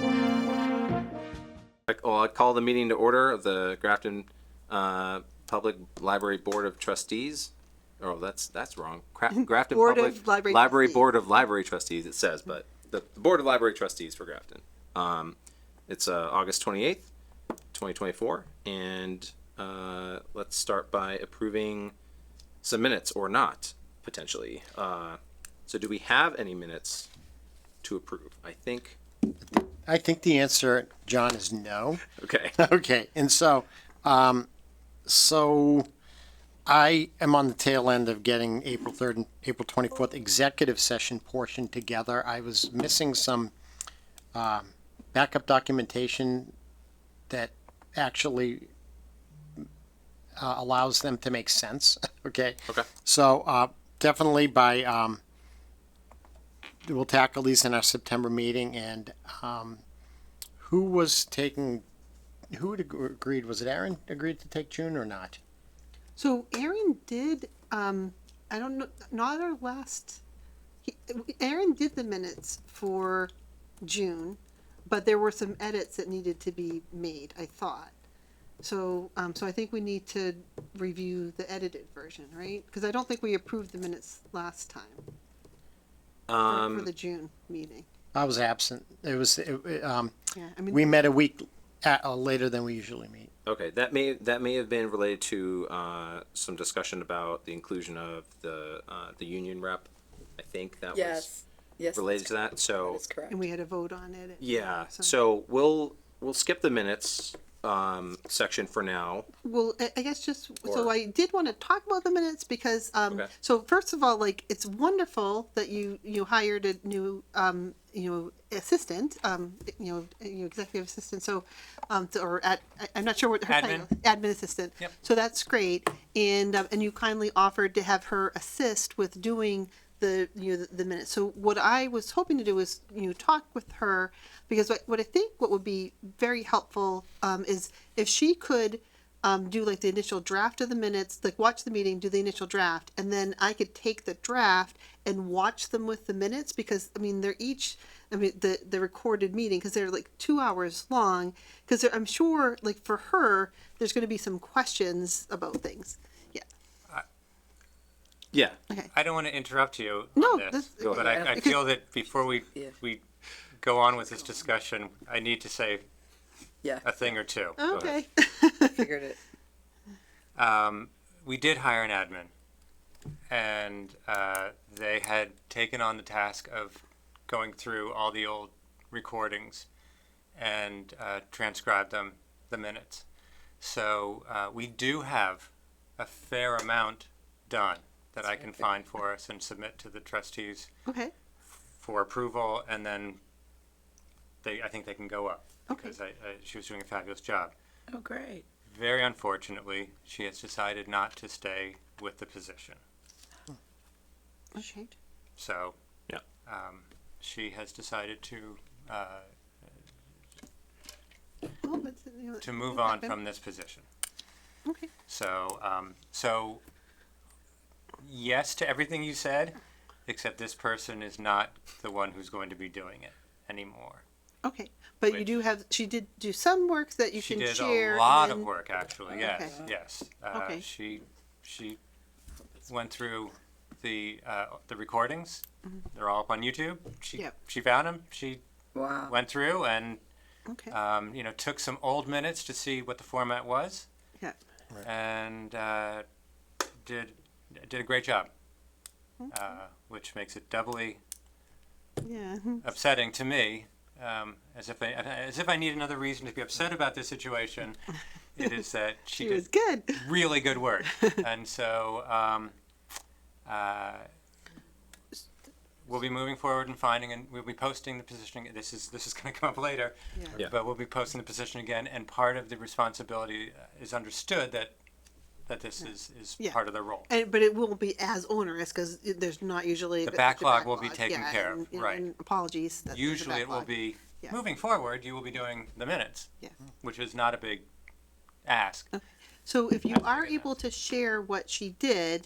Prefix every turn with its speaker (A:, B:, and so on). A: well, oh, I'd call the meeting to order of the Grafton uh, Public Library Board of Trustees. Oh, that's that's wrong. Cra- Grafton
B: Board
A: Public
B: of Library Trustees.
A: Board of Library Trustees. It says, but the, the Board of Library Trustees for Grafton. Um, it's uh, August twenty eighth, twenty twenty four, and uh, let's start by approving some minutes or not potentially. Uh, so, do we have any minutes to approve? I think.
C: I think the answer, John, is no.
A: Okay.
C: Okay, and so, um, so I am on the tail end of getting April third and April twenty-fourth executive session portion together. I was missing some, um, backup documentation that actually uh, allows them to make sense, okay?
A: Okay.
C: So, uh, definitely by, um, we'll tackle these in our September meeting and, um, who was taking who had ag- agreed? Was it Aaron agreed to take June or not?
B: So Aaron did, um, I don't know, not our last, he, Aaron did the minutes for June, but there were some edits that needed to be made, I thought. So, um, so I think we need to review the edited version, right? Cause I don't think we approved the minutes last time for- for
A: Um,
B: the June meeting.
C: I was absent. It was it, it, um,
B: Yeah, I
C: we
B: mean,
C: met a week at, uh, later than we usually meet.
A: okay, that may that may have been related to uh, some discussion about the inclusion of the uh, the union rep. I think that
D: Yes, yes.
A: was related to that. So
D: That's correct.
B: and we had a vote on it.
A: yeah, so we'll we'll skip the minutes um, section for now.
B: Well, I, I guess just, so
A: Or-
B: I did want to talk about the minutes because, um,
A: Okay.
B: so first of all, like, it's wonderful that you, you hired a new, um, you know, assistant, um, you know, you know, executive assistant, so, um, to- or at, I- I'm not sure what her title. Admin. Admin assistant. Yep. So that's great. And, um, and you kindly offered to have her assist with doing the, you know, the- the minutes. So what I was hoping to do is, you know, talk with her because what, what I think what would be very helpful, um, is if she could, um, do like the initial draft of the minutes, like watch the meeting, do the initial draft, and then I could take the draft and watch them with the minutes because I mean they're each, I mean the the recorded meeting because they're like two hours long because I'm sure like for her there's going to be some questions about things. Yeah.
A: Yeah,
B: Okay.
E: I don't want to interrupt you
B: No,
E: on this,
B: that's-
E: but I, I
B: Yeah.
E: feel that before we,
D: Yeah.
E: we go on with this discussion, I need to say
D: Yeah,
E: a thing or two.
B: Okay.
D: figured it.
E: Um, we did hire an admin, and uh, they had taken on the task of going through all the old recordings and uh, transcribe them, the minutes. So uh, we do have a fair amount done that I can find for us and submit to the trustees
B: Okay.
E: for approval, and then they, I think they can go up.
B: Okay.
E: Because I, I, she was doing a fabulous job.
D: Oh, great.
E: Very unfortunately, she has decided not to stay with the position.
B: Okay.
E: So
A: Yeah.
E: um, she has decided to uh,
B: Well, but, you know,
E: to move on
B: happen.
E: from this position.
B: Okay.
E: So um, so yes to everything you said, except this person is not the one who's going to be doing it anymore.
B: Okay. But you do have she did do some work that you
E: she
B: can
E: did
B: share.
E: a
B: and
E: lot
B: then-
E: of work actually yes
B: Okay.
E: yes uh,
B: Okay.
E: she she went through the uh, the recordings they're all up on youtube she
B: Mm-hmm. Yep.
E: she found them she
D: Wow.
E: went through and
B: Okay.
E: um, you know took some old minutes to see what the format was
B: yeah.
E: and uh, did did a great job
B: Mm-hmm.
E: uh, which makes it doubly
B: Yeah.
E: upsetting to me, um, as if I, as if I need another reason to be upset about this situation. it is that she,
B: She
E: did
B: was good.
E: really good work, and so um, uh, we'll be moving forward and finding, and we'll be posting the positioning. This is this is going to come up later,
B: Yeah.
A: Yeah.
E: but we'll be posting the position again. And part of the responsibility uh, is understood that that this is is
B: Yeah.
E: part of the role.
B: And, but it won't be as onerous because there's not usually
E: The
B: such a
E: backlog will be
B: backlog.
E: taken
B: Yeah,
E: care of,
B: and- and-
E: right.
B: and apologies. that there's a
E: Usually, it will
B: backlog.
E: be
B: Yeah.
E: moving forward. You will be doing the minutes.
B: Yeah.
E: which is not a big ask.
B: So if you
E: That's
B: are
E: pretty
B: able to share what she did,